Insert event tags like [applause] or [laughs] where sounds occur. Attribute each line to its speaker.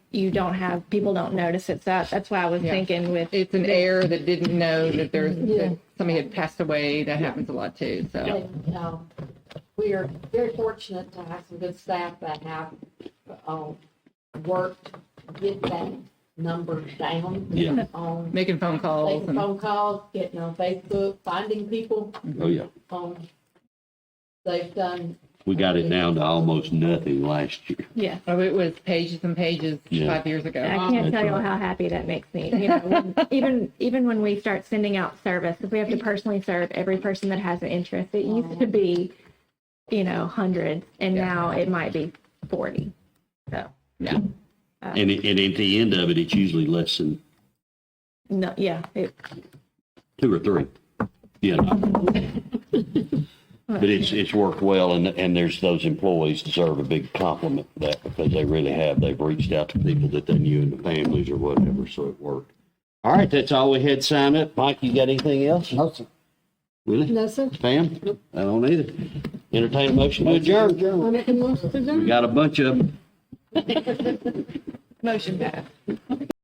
Speaker 1: you don't have people don't notice it's up. That's why I was
Speaker 2: Yeah.
Speaker 1: thinking with
Speaker 2: It's an heir that didn't know that there's, that somebody had passed away. That happens a lot too, so.
Speaker 3: And, um, we are very fortunate to have some good staff that have, um, worked, to get that number down.
Speaker 4: Yeah.
Speaker 3: On
Speaker 2: Making phone calls
Speaker 3: taking
Speaker 2: and,
Speaker 3: phone calls, getting on Facebook, finding people,
Speaker 4: Oh, yeah.
Speaker 3: um, they've done,
Speaker 4: We got it down to almost nothing last year.
Speaker 1: yeah.
Speaker 2: oh, it was pages and pages
Speaker 4: Yeah.
Speaker 2: five years
Speaker 1: I
Speaker 2: ago.
Speaker 1: can't
Speaker 4: that's
Speaker 1: tell you
Speaker 4: right.
Speaker 1: how happy that makes me. You know,
Speaker 2: [laughs]
Speaker 1: when, even even when we start sending out service, if we have to personally serve every person that has an interest, it used to be, you know, hundreds, and
Speaker 2: Yeah.
Speaker 1: now it might be forty. So
Speaker 2: Yeah.
Speaker 4: And, it, and at the end of it, it's usually less than
Speaker 1: no, yeah, it,
Speaker 4: two or three. You know. But it's, it's worked well and, and there's, those employees deserve a big compliment for that because they really have. They've reached out to people that they knew and the families or whatever, so it worked. All right, that's all we had, Sign up. Mike, you got anything else? No, sir. Really?
Speaker 3: no, sir,
Speaker 4: Pam? I don't either. Entertain a motion to adjourn.
Speaker 3: I'm making most of them.
Speaker 4: We got a bunch of them.
Speaker 2: Motion passed.